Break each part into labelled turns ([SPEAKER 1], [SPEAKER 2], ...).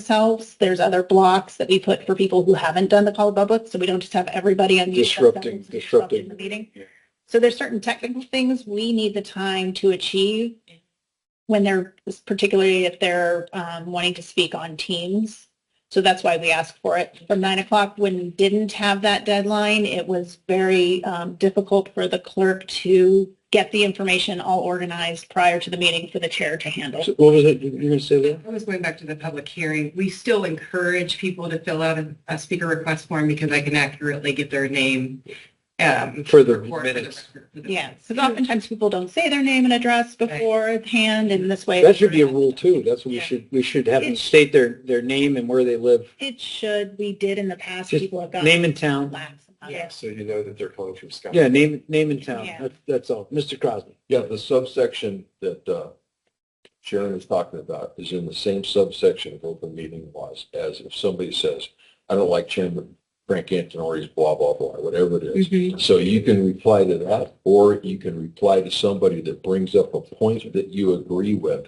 [SPEAKER 1] themselves. There's other blocks that we put for people who haven't done the call to public, so we don't just have everybody on.
[SPEAKER 2] Disrupting- disrupting.
[SPEAKER 1] The meeting.
[SPEAKER 2] Yeah.
[SPEAKER 1] So there's certain technical things we need the time to achieve when they're, particularly if they're um, wanting to speak on teams. So that's why we ask for it from nine o'clock. When we didn't have that deadline, it was very um, difficult for the clerk to get the information all organized prior to the meeting for the chair to handle.
[SPEAKER 2] So What was it, you were gonna say there?
[SPEAKER 3] I was going back to the public hearing. We still encourage people to fill out a, a speaker request form because I can accurately get their name. um,
[SPEAKER 2] For the
[SPEAKER 3] for- for the
[SPEAKER 2] minutes.
[SPEAKER 3] record, for the-
[SPEAKER 1] Yeah, because oftentimes people don't say their name and address beforehand and this way.
[SPEAKER 2] That should be a rule too. That's what we
[SPEAKER 3] Yeah.
[SPEAKER 2] should, we should have them state their, their name and where they live,
[SPEAKER 1] It should, we did in the past,
[SPEAKER 2] Just
[SPEAKER 1] people have gotten.
[SPEAKER 2] name and town.
[SPEAKER 1] lax about it.
[SPEAKER 3] Yeah.
[SPEAKER 4] So you know that they're coming from Scott.
[SPEAKER 2] Yeah, name, name and town.
[SPEAKER 1] Yeah.
[SPEAKER 2] That's, that's all. Mr. Crosby.
[SPEAKER 4] Yeah, the subsection that uh, Sharon was talking about is in the same subsection of open meeting laws as if somebody says, I don't like Chairman Frank Antonori's blah, blah, blah, whatever it is.
[SPEAKER 1] Mhm.
[SPEAKER 4] So you can reply to that, or you can reply to somebody that brings up a point that you agree with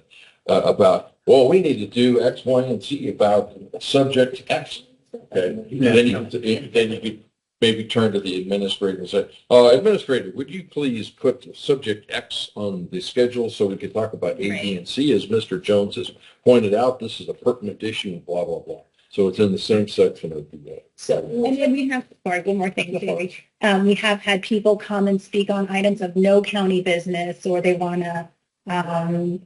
[SPEAKER 4] uh, about, well, we need to do X, Y, and Z about subject X. Okay, and then you, then you could maybe turn to the administrator and say, uh, administrator, would you please put subject X on the schedule so we can talk about A, B,
[SPEAKER 1] Right.
[SPEAKER 4] and C? As Mr. Jones has pointed out, this is a pertinent issue, blah, blah, blah. So it's in the same section of the. uh,
[SPEAKER 1] So, Mm-hmm. and then we have, sorry, one more thing before we, um, we have had people come and speak on items of no county business, or they want to, um,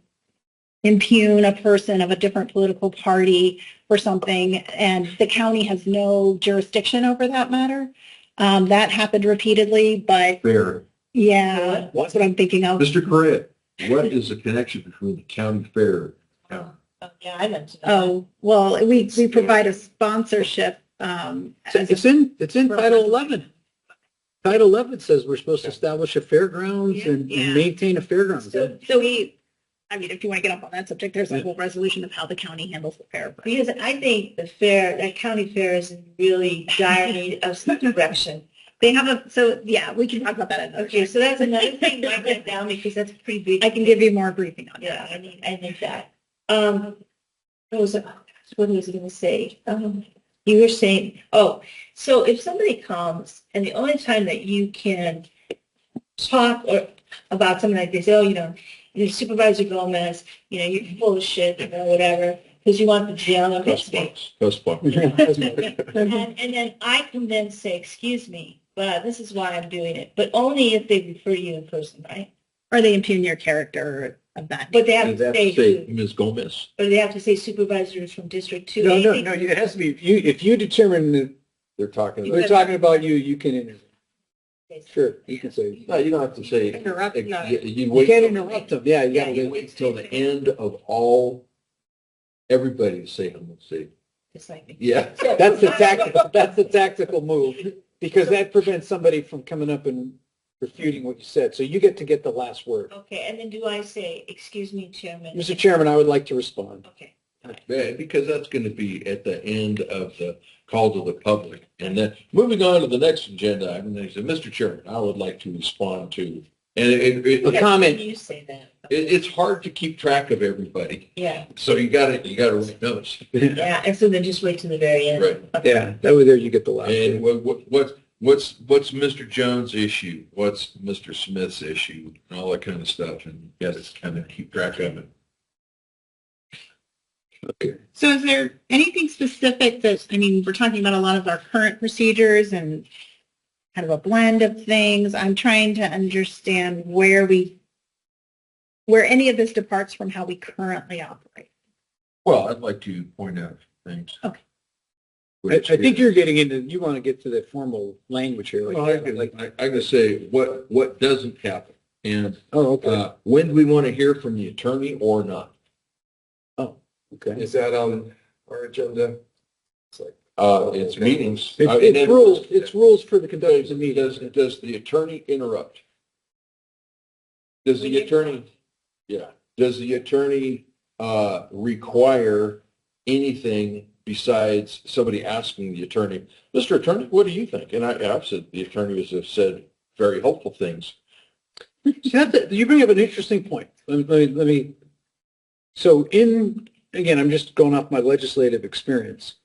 [SPEAKER 1] impugn a person of a different political party or something, and the county has no jurisdiction over that matter. Um, that happened repeatedly, but
[SPEAKER 4] Fair.
[SPEAKER 1] yeah, that's what I'm thinking of.
[SPEAKER 4] Mr. Correa, what is the connection between the county fair?
[SPEAKER 1] Yeah, I mentioned. Oh, well, we, we provide a sponsorship, um, as a
[SPEAKER 2] It's in, it's in Title 11. Title 11 says we're supposed to establish a fairgrounds and
[SPEAKER 1] Yeah.
[SPEAKER 2] and maintain a fairgrounds.
[SPEAKER 1] So, so we, I mean, if you want to get up on that subject, there's a whole resolution of how the county handles the fair. but-
[SPEAKER 5] Because I think the fair, that county fair is in really dire need of some direction.
[SPEAKER 1] They have a, so yeah, we can talk about that. another
[SPEAKER 5] Okay,
[SPEAKER 1] time.
[SPEAKER 5] so that's another thing, write that down because that's pretty big.
[SPEAKER 1] I can give you more briefing on
[SPEAKER 5] Yeah,
[SPEAKER 1] that.
[SPEAKER 5] I need, I need that. Um, what was, it- oh, gosh, what was I gonna say? Um, you were saying, oh, so if somebody comes and the only time that you can talk or about something like this, oh, you know, your supervisor Gomez, you know, you're full of shit, you know, whatever, because you want the jail on this thing.
[SPEAKER 4] That's fun.
[SPEAKER 1] Mm-hmm.
[SPEAKER 5] And, and then I can then say, excuse me, but this is why I'm doing it, but only if they refer to you in person, right?
[SPEAKER 1] Or they impugn your character of that.
[SPEAKER 5] But they have
[SPEAKER 4] And
[SPEAKER 5] to
[SPEAKER 4] that's
[SPEAKER 5] say,
[SPEAKER 4] say,
[SPEAKER 5] who-
[SPEAKER 4] Ms. Gomez.
[SPEAKER 5] or they have to say supervisors from District Two.
[SPEAKER 2] No,
[SPEAKER 5] I
[SPEAKER 2] no,
[SPEAKER 5] think-
[SPEAKER 2] no, it has to be, if you, if you determine that
[SPEAKER 4] They're talking
[SPEAKER 2] we're
[SPEAKER 4] about.
[SPEAKER 2] talking about you, you can intervene. Sure, you can say.
[SPEAKER 4] No, you don't have to say.
[SPEAKER 3] Interrupt, no.
[SPEAKER 4] You- You
[SPEAKER 2] You
[SPEAKER 4] wait.
[SPEAKER 2] can't interrupt them. Yeah, you
[SPEAKER 4] Yeah,
[SPEAKER 2] gotta
[SPEAKER 4] you
[SPEAKER 2] wait.
[SPEAKER 4] wait till the end of all, everybody to say, I'm gonna say,
[SPEAKER 5] It's like-
[SPEAKER 4] yeah.
[SPEAKER 2] That's the tactical, that's the tactical move, because that prevents somebody from coming up and refuting what you said. So you get to get the last word.
[SPEAKER 5] Okay, and then do I say, excuse me, Chairman?
[SPEAKER 2] Mr. Chairman, I would like to respond.
[SPEAKER 5] Okay,
[SPEAKER 4] Yeah, Because that's gonna be at the end of the call to the public. And then, moving on to the next agenda, item, they say, Mr. Chairman, I would like to respond to, and it, it,
[SPEAKER 2] A
[SPEAKER 4] it,
[SPEAKER 2] comment,
[SPEAKER 5] you say that,
[SPEAKER 4] it's hard to keep track of everybody.
[SPEAKER 5] yeah,
[SPEAKER 4] So you gotta, you gotta write notes.
[SPEAKER 5] yeah, and so then just wait till the very end.
[SPEAKER 4] Right.
[SPEAKER 2] yeah, that way there you get the last
[SPEAKER 4] And
[SPEAKER 2] word.
[SPEAKER 4] what, what, what- what's, what's Mr. Jones' issue? What's Mr. Smith's issue? And all that kind of stuff. And you gotta kind of keep track of it.
[SPEAKER 1] So is there anything specific that, I mean, we're talking about a lot of our current procedures and kind of a blend of things. I'm trying to understand where we, where any of this departs from how we currently operate.
[SPEAKER 4] Well, I'd like to point out things.
[SPEAKER 1] Okay.
[SPEAKER 2] I, I think you're getting into, you want to get to the formal language here.
[SPEAKER 4] Well, I can-
[SPEAKER 2] like-
[SPEAKER 4] I- I'm going to say what, what doesn't happen. And
[SPEAKER 2] Oh, okay,
[SPEAKER 4] uh, when do we want to hear from the attorney or not?
[SPEAKER 2] okay.
[SPEAKER 6] Is that
[SPEAKER 2] um,
[SPEAKER 6] on our agenda?
[SPEAKER 4] Uh, It's meetings. Uh,
[SPEAKER 2] It's, it's
[SPEAKER 4] and-
[SPEAKER 2] rules, it's rules for the conduct of
[SPEAKER 4] Does,
[SPEAKER 2] the
[SPEAKER 4] does,
[SPEAKER 2] meeting.
[SPEAKER 4] does the attorney interrupt? Does the attorney, yeah, does the attorney, uh, require anything besides somebody asking the attorney, Mr. Attorney, what do you think? And I, and I've said, the attorneys have said very helpful things.
[SPEAKER 2] See, that's, you bring up an interesting point. Let me, let me, let me, so in again, I'm just going off my legislative experience.